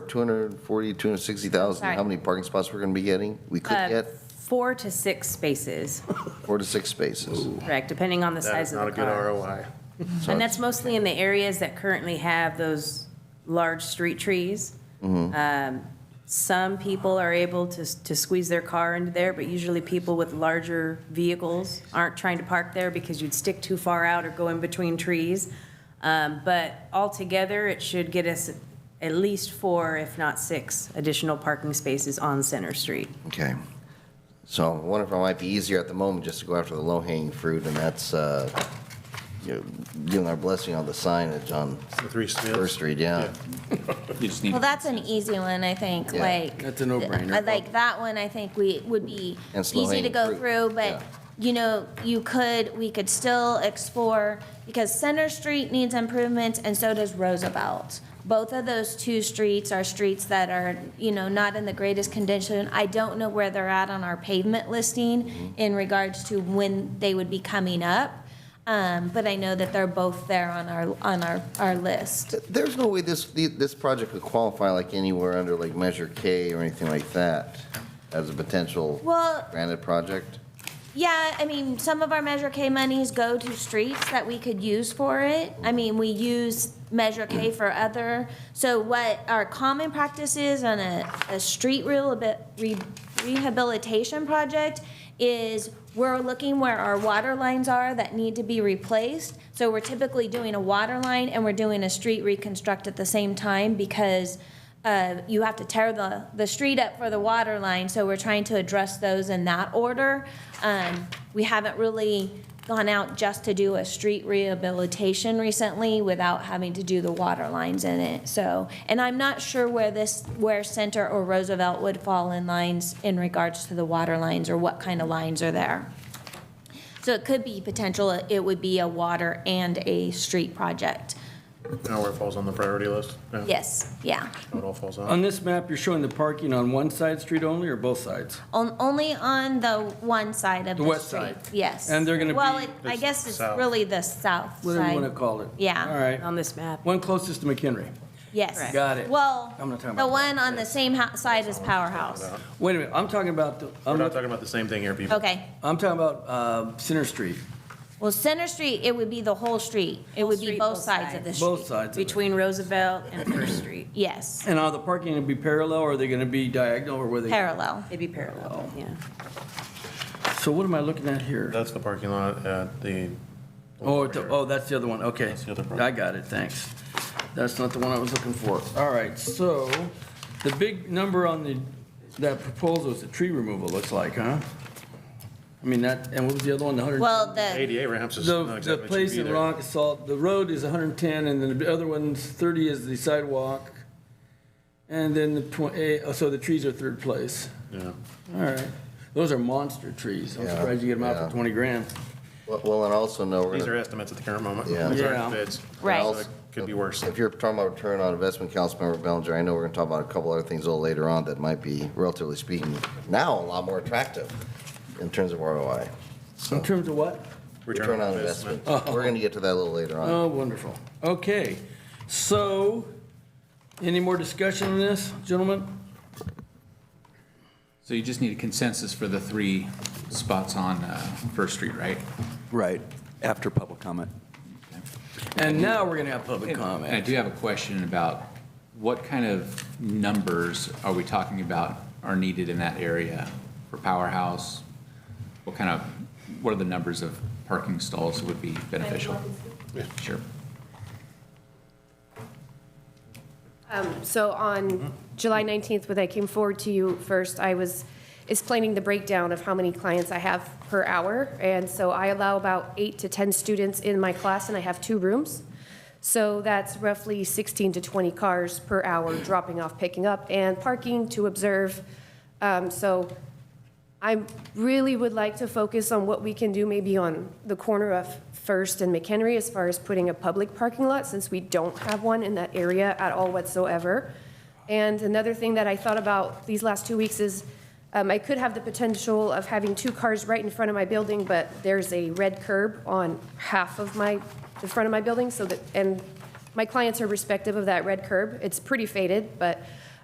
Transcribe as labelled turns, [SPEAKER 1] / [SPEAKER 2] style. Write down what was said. [SPEAKER 1] 240, 260,000, how
[SPEAKER 2] Sorry.
[SPEAKER 1] many parking spots we're going to be getting? We could
[SPEAKER 2] Uh,
[SPEAKER 1] get
[SPEAKER 2] Four to six spaces,
[SPEAKER 1] four to six spaces.
[SPEAKER 2] correct, depending on the
[SPEAKER 3] That is
[SPEAKER 2] size of
[SPEAKER 3] not a
[SPEAKER 2] the
[SPEAKER 3] good
[SPEAKER 2] car.
[SPEAKER 3] ROI.
[SPEAKER 1] So
[SPEAKER 2] And that's mostly in the areas that currently have those large street trees.
[SPEAKER 3] Mm-hmm.
[SPEAKER 2] Um, Some people are able to, s- to squeeze their car into there, but usually people with larger vehicles aren't trying to park there because you'd stick too far out or go in between trees. Um, But altogether, it should get us at least four, if not six, additional parking spaces on Center Street.
[SPEAKER 1] Okay. So I wonder if it might be easier at the moment just to go after the low-hanging fruit, and that's, uh, you know, giving our blessing on the signage on
[SPEAKER 3] The three Smiths.
[SPEAKER 1] First Street, yeah.
[SPEAKER 4] You just need
[SPEAKER 5] Well, that's an easy one, I think,
[SPEAKER 1] Yeah.
[SPEAKER 5] like.
[SPEAKER 6] That's a no-brainer.
[SPEAKER 5] I Like, that one, I think we, would be
[SPEAKER 1] And slow
[SPEAKER 5] easy to
[SPEAKER 1] hanging
[SPEAKER 5] go
[SPEAKER 1] fruit,
[SPEAKER 5] through,
[SPEAKER 1] yeah.
[SPEAKER 5] but, you know, you could, we could still explore, because Center Street needs improvements, and so does Roosevelt. Both of those two streets are streets that are, you know, not in the greatest condition. I don't know where they're at on our pavement listing in regards to when they would be coming up, um, but I know that they're both there on our, on our, our list.
[SPEAKER 1] There's no way this, the- this project could qualify like anywhere under like Measure K or anything like that as a potential
[SPEAKER 5] Well,
[SPEAKER 1] granted project?
[SPEAKER 5] Yeah, I mean, some of our Measure K monies go to streets that we could use for it. I mean, we use Measure K for other, so what our common practice is on a, a street rehabil- re- rehabilitation project is we're looking where our water lines are that need to be replaced. So we're typically doing a water line and we're doing a street reconstruct at the same time because uh, you have to tear the, the street up for the water line, so we're trying to address those in that order. Um, We haven't really gone out just to do a street rehabilitation recently without having to do the water lines in it, so. And I'm not sure where this, where Center or Roosevelt would fall in lines in regards to the water lines or what kind of lines are there. So it could be potential, it would be a water and a street project.
[SPEAKER 3] Now where it falls on the priority list? Yeah.
[SPEAKER 5] Yes, yeah.
[SPEAKER 3] How it all falls out.
[SPEAKER 6] On this map, you're showing the parking on one side street only or both sides?
[SPEAKER 5] On, only on the one side of the street.
[SPEAKER 6] The west side.
[SPEAKER 5] Yes.
[SPEAKER 6] And they're gonna
[SPEAKER 5] Well,
[SPEAKER 6] be
[SPEAKER 5] it- I
[SPEAKER 3] the
[SPEAKER 5] guess it's
[SPEAKER 3] south.
[SPEAKER 5] really the south
[SPEAKER 6] Whatever you want to
[SPEAKER 5] side.
[SPEAKER 6] call it.
[SPEAKER 5] Yeah. Um,
[SPEAKER 6] All right.
[SPEAKER 2] On this map,
[SPEAKER 6] One closest to McHenry.
[SPEAKER 5] Yes.
[SPEAKER 6] Got it.
[SPEAKER 5] Well,
[SPEAKER 6] I'm not talking
[SPEAKER 5] the
[SPEAKER 6] about that.
[SPEAKER 5] one on the same hou- side as Powerhouse.
[SPEAKER 6] Wait a minute, I'm talking about, the.
[SPEAKER 3] We're
[SPEAKER 6] I'm
[SPEAKER 3] not talking about the same thing here, people.
[SPEAKER 5] Okay.
[SPEAKER 6] I'm talking about uh, Center Street,
[SPEAKER 5] Well, Center Street, it would be the whole street. It would be
[SPEAKER 2] street,
[SPEAKER 5] both
[SPEAKER 2] both
[SPEAKER 5] sides of the street.
[SPEAKER 6] both sides of it.
[SPEAKER 2] between Roosevelt and First Street.
[SPEAKER 5] Yes,
[SPEAKER 6] And are the parking going to be parallel, or are they going to be diagonal, or where they?
[SPEAKER 5] parallel.
[SPEAKER 2] It'd be parallel, yeah.
[SPEAKER 6] So what am I looking at here?
[SPEAKER 3] That's the parking lot at the.
[SPEAKER 6] Oh, it's- oh, that's the other one, okay.
[SPEAKER 3] That's the other part.
[SPEAKER 6] I got it, thanks. That's not the one I was looking for. All right, so the big number on the, that proposal is the tree removal, looks like, huh? I mean, that, and what was the other one, the 100?
[SPEAKER 5] Well, the,
[SPEAKER 3] ADA ramps is
[SPEAKER 6] The,
[SPEAKER 3] not
[SPEAKER 6] the
[SPEAKER 3] exactly cheap
[SPEAKER 6] place in
[SPEAKER 3] either.
[SPEAKER 6] Rockasalt, the road is 110, and then the other one's 30 is the sidewalk. And then the 20, oh, so the trees are third place.
[SPEAKER 3] Yeah.
[SPEAKER 6] All right. Those are monster trees. I'm
[SPEAKER 1] Yeah,
[SPEAKER 6] surprised you get them out
[SPEAKER 1] yeah.
[SPEAKER 6] for 20 grand.
[SPEAKER 1] Well- Well, and also know we're
[SPEAKER 3] These are
[SPEAKER 1] going to,
[SPEAKER 3] estimates at the current moment.
[SPEAKER 1] Yeah.
[SPEAKER 3] These aren't
[SPEAKER 6] Yeah.
[SPEAKER 3] bids.
[SPEAKER 5] Right.
[SPEAKER 3] So it Could be worse.
[SPEAKER 1] if you're talking about return on investment, Councilmember Bellinger, I know we're going to talk about a couple other things a little later on that might be, relatively speaking, now a lot more attractive in terms of ROI.
[SPEAKER 6] In terms of what?
[SPEAKER 1] Return on investment. We're going to get to that a little later on.
[SPEAKER 6] Oh, wonderful. Okay. So, any more discussion on this, gentlemen?
[SPEAKER 4] So you just need a consensus for the three spots on uh, First Street, right?
[SPEAKER 7] Right, after public comment.
[SPEAKER 6] And now we're going to have public
[SPEAKER 4] And I
[SPEAKER 6] comment.
[SPEAKER 4] do have a question about what kind of numbers are we talking about are needed in that area for Powerhouse? What kind of, what are the numbers of parking stalls would be beneficial? Sure.
[SPEAKER 8] So on July 19th, when I came forward to you first, I was explaining the breakdown of how many clients I have per hour. And so I allow about eight to 10 students in my class, and I have two rooms. So that's roughly 16 to 20 cars per hour dropping off, picking up, and parking to observe. Um, So I really would like to focus on what we can do maybe on the corner of First and McHenry as far as putting a public parking lot, since we don't have one in that area at all whatsoever. And another thing that I thought about these last two weeks is um, I could have the potential of having two cars right in front of my building, but there's a red curb on half of my, the front of my building, so that, and my clients are respective of that red curb. It's pretty faded, but